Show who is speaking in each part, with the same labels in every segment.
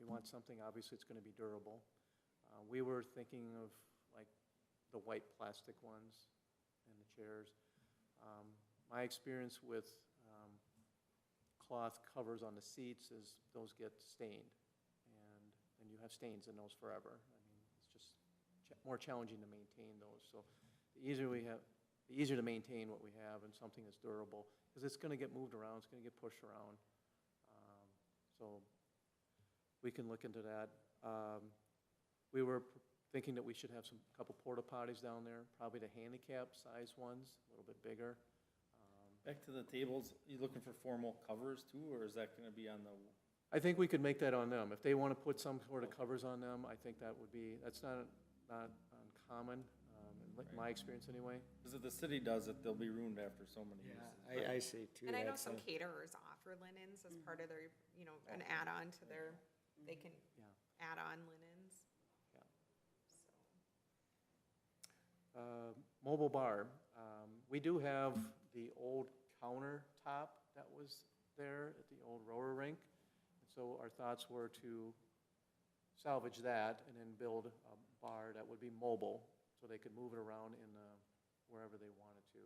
Speaker 1: want something, obviously, it's going to be durable. Uh, We were thinking of like the white plastic ones and the chairs. Um, My experience with um, cloth covers on the seats is those get stained, and, and you have stains in those forever. I mean, it's just cha- more challenging to maintain those, so the easier we have, the easier to maintain what we have and something that's durable, because it's going to get moved around, it's going to get pushed around. Um, So we can look into that. Um, We were p- thinking that we should have some, couple porta potties down there, probably the handicap size ones, a little bit bigger. Um,
Speaker 2: Back to the tables, you looking for formal covers too, or is that gonna be on the,
Speaker 1: I think we could make that on them. If they want to put some sort of covers on them, I think that would be, that's not, not uncommon, um, in li- my experience anyway.
Speaker 2: because if the city does it, they'll be ruined after so many
Speaker 3: Yeah,
Speaker 2: uses.
Speaker 3: I, I see too.
Speaker 4: And I know
Speaker 3: that's
Speaker 4: some
Speaker 3: a-
Speaker 4: caterers offer linens as part
Speaker 1: Mm-hmm.
Speaker 4: of their, you know, an add-on to their, they can
Speaker 1: Yeah.
Speaker 4: add on linens.
Speaker 1: Yeah.
Speaker 4: So.
Speaker 1: Uh, Mobile bar, um, we do have the old countertop that was there at the old rower rink. So our thoughts were to salvage that and then build a bar that would be mobile, so they could move it around in, uh, wherever they wanted to.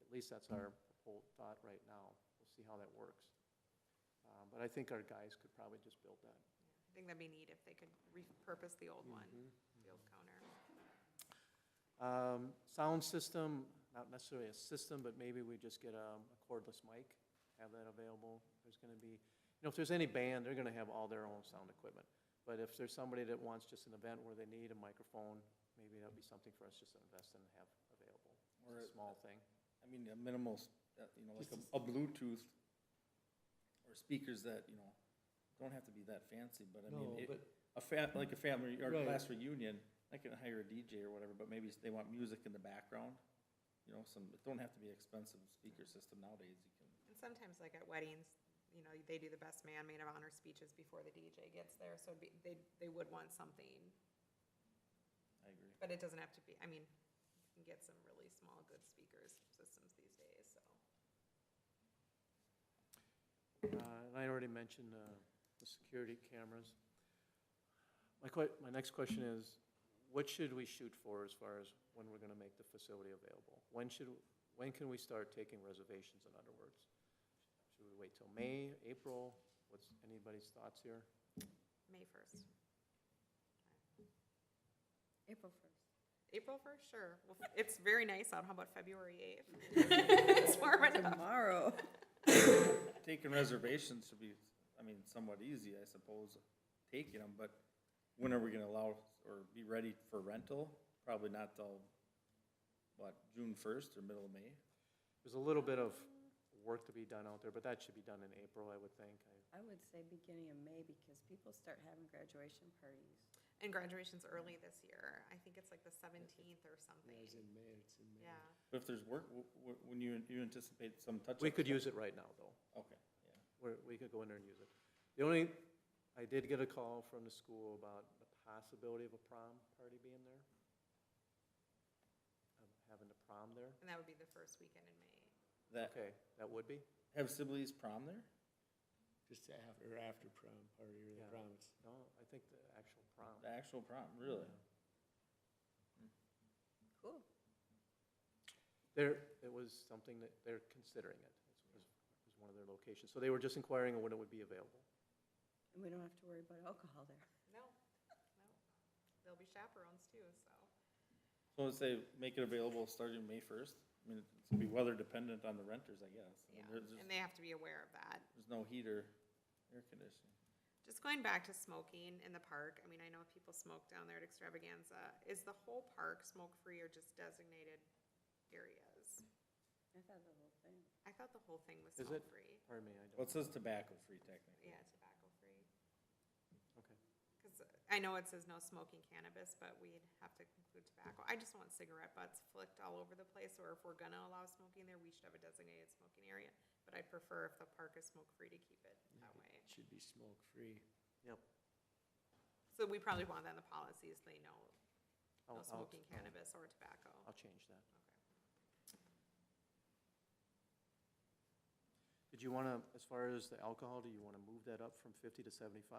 Speaker 1: At least that's our whole thought right now. We'll see how that works. Uh, But I think our guys could probably just build that.
Speaker 4: I think that'd be neat if they could repurpose the old one,
Speaker 1: Mm-hmm.
Speaker 4: the old counter.
Speaker 1: Um, Sound system, not necessarily a system, but maybe we just get um, a cordless mic, have that available. There's going to be, you know, if there's any band, they're going to have all their own sound equipment. But if there's somebody that wants just an event where they need a microphone, maybe that would be something for us just to invest in and have available.
Speaker 2: Or-
Speaker 1: It's a small thing.
Speaker 2: I mean, a minimal, s- uh, you know, like a- a Bluetooth or speakers that, you know, don't have to be that fancy, but I mean,
Speaker 3: No,
Speaker 2: it-
Speaker 3: but
Speaker 2: a fa, like a family or
Speaker 3: Right.
Speaker 2: class reunion, I can hire a DJ or whatever, but maybe they want music in the background. You know, some, it don't have to be expensive speaker system nowadays, you can.
Speaker 4: And sometimes like at weddings, you know, they do the best man, maid of honor speeches before the DJ gets there, so it'd be, they, they would want something.
Speaker 2: I agree.
Speaker 4: But it doesn't have to be, I mean, you can get some really small, good speakers systems these days, so.
Speaker 1: Uh, And I already mentioned uh, the security cameras. My que, my next question is, what should we shoot for as far as when we're going to make the facility available? When should, when can we start taking reservations, in other words? Should we wait till May, April? What's anybody's thoughts here?
Speaker 4: May first.
Speaker 5: April first.
Speaker 4: April first, sure. Well, It's very nice out. How about February eighth? It's warm enough.
Speaker 5: Tomorrow.
Speaker 2: Taking reservations should be, I mean, somewhat easy, I suppose, taking them, but when are we gonna allow or be ready for rental? Probably not till, what, June first or middle of May?
Speaker 1: There's a little bit of work to be done out there, but that should be done in April, I would think. I-
Speaker 5: I would say beginning of May because people start having graduation parties.
Speaker 4: And graduation's early this year. I think it's like the seventeenth or
Speaker 3: yeah,
Speaker 4: something.
Speaker 3: it's in May, it's in May.
Speaker 4: Yeah.
Speaker 2: But if there's work, w- w- when you, you anticipate some touch-up?
Speaker 1: We could use it right now, though.
Speaker 2: Okay, yeah.
Speaker 1: where we could go in there and use it. The only, I did get a call from the school about the possibility of a prom party being there. Of Having the prom there.
Speaker 4: And that would be the first weekend in May.
Speaker 2: That,
Speaker 1: Okay, that would be?
Speaker 2: have Sibley's prom there?
Speaker 3: Just after, or after prom party or the
Speaker 1: Yeah.
Speaker 3: prom. it's-
Speaker 1: No, I think the actual prom.
Speaker 2: The actual prom, really?
Speaker 5: Cool.
Speaker 1: There, it was something that they're considering it. It was was one of their locations. So they were just inquiring when it would be available.
Speaker 5: And we don't have to worry about alcohol there.
Speaker 4: No, no. There'll be chaperones too, so.
Speaker 2: So let's say, make it available starting May first? I mean, it's gonna be weather dependent on the renters, I guess. I mean,
Speaker 4: Yeah,
Speaker 2: there's just-
Speaker 4: and they have to be aware of that.
Speaker 2: There's no heater, air conditioning.
Speaker 4: Just going back to smoking in the park, I mean, I know people smoke down there at Extravaganza. Is the whole park smoke-free or just designated areas?
Speaker 5: I thought the whole thing.
Speaker 4: I thought the whole thing was
Speaker 1: Is it?
Speaker 4: smoke-free.
Speaker 1: Pardon me, I don't.
Speaker 2: Well, it says tobacco-free technically.
Speaker 4: Yeah, tobacco-free.
Speaker 1: Okay.
Speaker 4: Because uh, I know it says no smoking cannabis, but we'd have to include tobacco. I just want cigarette butts flicked all over the place, or if we're gonna allow smoking there, we should have a designated smoking area. But I'd prefer if the park is smoke-free to keep it that way.
Speaker 3: It should be smoke-free.
Speaker 4: So we probably want that in the policies, they know,
Speaker 1: I'll-
Speaker 4: no
Speaker 1: I'll-
Speaker 4: smoking cannabis or tobacco.
Speaker 1: I'll change that. Did you want to, as far as the alcohol, do you want to move that up from 50 to 75?